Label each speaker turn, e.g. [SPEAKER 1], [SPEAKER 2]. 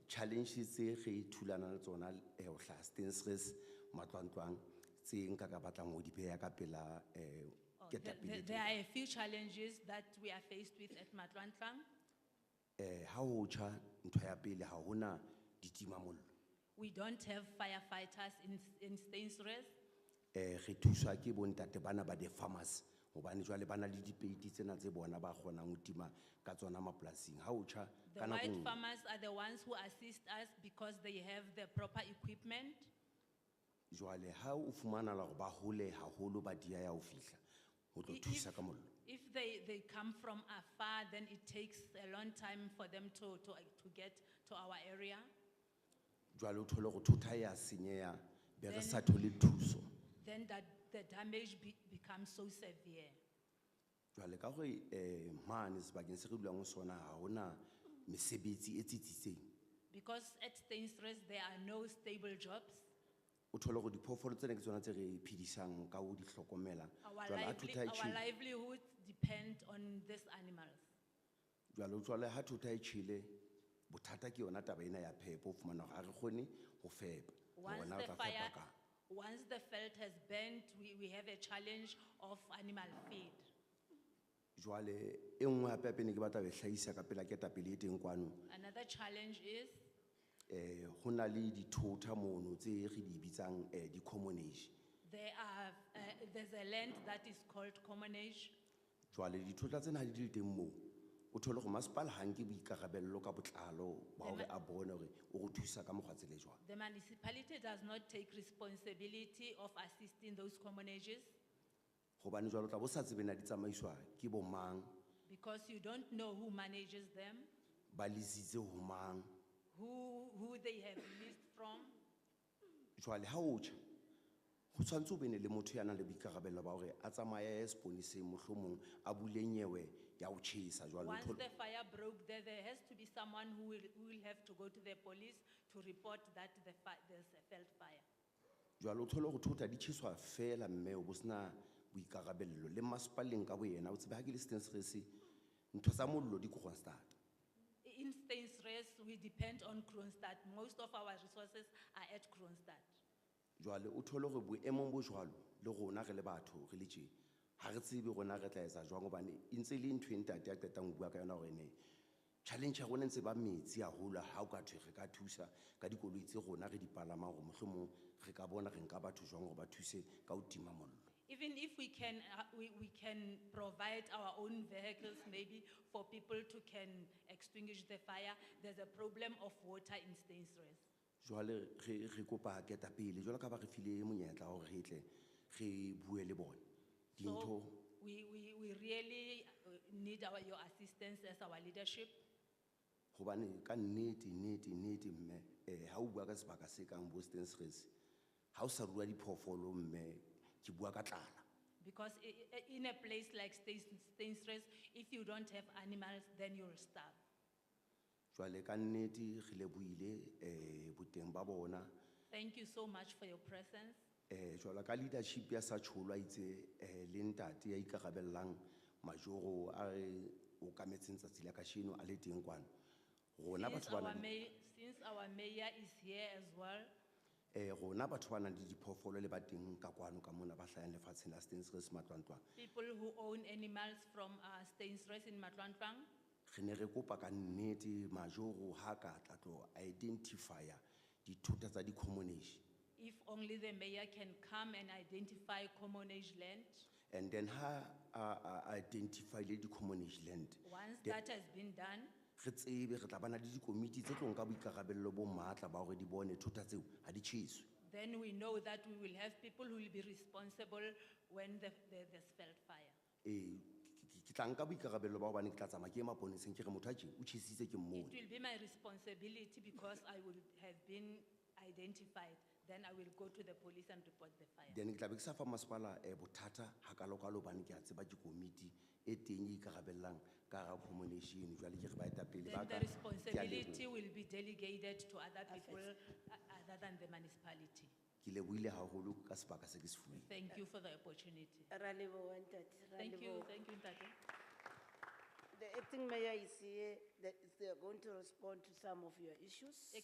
[SPEAKER 1] challenges tse re thulana le tsona eh o hlaha Stensres matlwantlwang tse nka ka batlang ho di beha ka pela eh
[SPEAKER 2] Oh, the- the- There
[SPEAKER 1] ketapele.
[SPEAKER 2] are a few challenges that we are faced with at Matlantlang.
[SPEAKER 1] Eh ha ho tjha ntho ya pele ha hona ditima mollo.
[SPEAKER 2] We don't have firefighters in, in Stainsres.
[SPEAKER 1] Eh re thuswa ke bontate bana ba the farmers hobane jwale bana le dipeiti tsena tse bona ba kgonang ho tima ka tsona mapolasing. Ha ho tjha
[SPEAKER 2] The
[SPEAKER 1] ka nako
[SPEAKER 2] white
[SPEAKER 1] nngwe-
[SPEAKER 2] farmers are the ones who assist us because they have the proper equipment.
[SPEAKER 1] Joale, ha o fumana la hore ba hole haholo ba dia ya ho fihla ho tlo
[SPEAKER 2] I-
[SPEAKER 1] thusa
[SPEAKER 2] if-
[SPEAKER 1] ka mollo.
[SPEAKER 2] If they, they come from afar, then it takes a long time for them to, to, uh, to get to our area.
[SPEAKER 1] Joale o thole hore thota ya senyeha be re
[SPEAKER 2] Then-
[SPEAKER 1] sa thole thuso.
[SPEAKER 2] Then that, the damage be, becomes so severe.
[SPEAKER 1] Joale ka hore eh mane sebakeng se re dulang ho sona ha hona mesebetsi e tsitsitseng.
[SPEAKER 2] Because at Stainsres, there are no stable jobs.
[SPEAKER 1] O thole hore diphoofolo tsena ke tsona tse re iphedisang ka ho di hlokomela.
[SPEAKER 2] Our
[SPEAKER 1] Jwale ha
[SPEAKER 2] lively,
[SPEAKER 1] thota e
[SPEAKER 2] our
[SPEAKER 1] tjhele-
[SPEAKER 2] livelihoods depend on these animals.
[SPEAKER 1] Jwale jwale ha thota e tjhele bothata ke yona taba ena ya phepo o fumana hore ha re kgone ho fepa. Hore
[SPEAKER 2] Once
[SPEAKER 1] na o
[SPEAKER 2] the
[SPEAKER 1] tla
[SPEAKER 2] fire,
[SPEAKER 1] fepa kang.
[SPEAKER 2] once the felt has burnt, we, we have a challenge of animal feed.
[SPEAKER 1] Joale, e nngwe hape ya pene ke batla ho e hlahisa ka pela ketapele e teng kwano.
[SPEAKER 2] Another challenge is,
[SPEAKER 1] Eh, ho na le dithota mono tse re di bitsang eh di-common age.
[SPEAKER 2] there are, uh, there's a land that is called commonage.
[SPEAKER 1] Joale, dithota tsena ha di le teng moo. O thole hore masepala ha nke boikarabello ka botlalo ba hore
[SPEAKER 2] Ema-
[SPEAKER 1] a bone hore o re thusa ka mokgwa tsela e jwang.
[SPEAKER 2] The municipality does not take responsibility of assisting those commonages
[SPEAKER 1] Hobane jwale o tla bo sa tsebe na di tsamaiswa ke bo mang,
[SPEAKER 2] because you don't know who manages them,
[SPEAKER 1] ba lisitse ho mang.
[SPEAKER 2] who, who they have leased from.
[SPEAKER 1] Joale, ha o tjha, ho tshwantse o be ne le motho ya nang le boikarabello ba hore a tsamaye a ye seponeseng mohlomong a bule nyewe ya ho tjhesa jwale. o
[SPEAKER 2] Once
[SPEAKER 1] thole-
[SPEAKER 2] the fire broke, there, there has to be someone who will, who will have to go to the police to report that the fi, there's a felt fire.
[SPEAKER 1] jwale o thole hore thota di tjheswa fela mme o bo sena boikarabello le masepaleng ka boyena o tsebe ha ke le stensres ntho tsa mollo di ko constant
[SPEAKER 2] I- In Stainsres, we depend on Kronstadt. Most of our resources are at Kronstadt.
[SPEAKER 1] jwale o thole hore boemong bo jwalo le rona re le batho re le tje ha re tsebe rona re tla etsa jwang hobane e ntse e le ntho e ntate a qetang ho bua ka yona hore ne challenge ya rona e ntse ba metsi haholo ha o ka thwe re ka thusa ka dikoloi tse rona re di palamang hore mohlomong re ka bona re nka batho jwang hore ba thuse ka ho tima mollo
[SPEAKER 2] Even if we can, uh, we, we can provide our own vehicles maybe for people to can extinguish the fire, there's a problem of water in Stainsres.
[SPEAKER 1] jwale re re kopa ketapele jwalo ka ba re file monyetla wa hore re tle re bue le bone
[SPEAKER 2] So
[SPEAKER 1] dintho
[SPEAKER 2] we, we, we really uh, need our, your assistance as our leadership.
[SPEAKER 1] hobane ka nnete nnete nnete mme um ha o bua ka sebaka se kang bo stensres ha o sa rua diphoofolo mme ke bua ka tlala
[SPEAKER 2] Because i- i- in a place like Stain- Stainsres, if you don't have animals, then you'll starve.
[SPEAKER 1] jwale ka nnete re lebohile um boteng ba bona
[SPEAKER 2] Thank you so much for your presence.
[SPEAKER 1] um jwalo ka leadership ya sa tsholo a itse um le ntate ya ikarabellang majoro a re o kametseng tsatsi la kasheno a le teng kwano rona
[SPEAKER 2] Since
[SPEAKER 1] batho ba
[SPEAKER 2] our
[SPEAKER 1] nang le-
[SPEAKER 2] mayor, since our mayor is here as well,
[SPEAKER 1] Eh, rona batho ba nang le diphoofolo le ba teng ka kwano ka mona ba hlayang lefatsheng la Stensres matlwantlwang.
[SPEAKER 2] people who own animals from uh, Stainsres in Matlantlang,
[SPEAKER 1] Re ne re kopa ka nnete majoro ha ka tla tlo identifya dithota tsa di-common age.
[SPEAKER 2] if only the mayor can come and identify common age land.
[SPEAKER 1] And then ha a a identify le di-common age land.
[SPEAKER 2] Once
[SPEAKER 1] The-
[SPEAKER 2] that has been done,
[SPEAKER 1] Re tsebe re tla bana le dikomiti tse tlo nka boikarabello bo matla ba hore di bone thota tseo ha di tjheswe.
[SPEAKER 2] then we know that we will have people who will be responsible when the, the, the felt fire.
[SPEAKER 1] Eh, ke- ke- ke tla nka boikarabello ba hobane ke tla tsamaya ke ye maponeseng ke re motho a tje o tjhesitse ke
[SPEAKER 2] It
[SPEAKER 1] mmone.
[SPEAKER 2] will be my responsibility because I will have been identified. Then I will go to the police and report the fire.
[SPEAKER 1] then ke tlabe ke sa fa masepala um bothata gakalokalo obane ke a tseba ke komiti e teng e ikarabellang ka hara commonation jwale ke re ba etapele
[SPEAKER 2] Then
[SPEAKER 1] ba
[SPEAKER 2] the
[SPEAKER 1] ka ke a
[SPEAKER 2] responsibility
[SPEAKER 1] leboha.
[SPEAKER 2] will be delegated to other people uh, other than the municipality.
[SPEAKER 1] ke lebohile haholo ka sebaka se ke se fuweng
[SPEAKER 2] Thank you for the opportunity.
[SPEAKER 3] Ra leboha ntate, ra
[SPEAKER 2] Thank you,
[SPEAKER 3] leboha.
[SPEAKER 2] thank you, Ntate.
[SPEAKER 3] The acting mayor is here, that is- they are going to respond to some of your issues.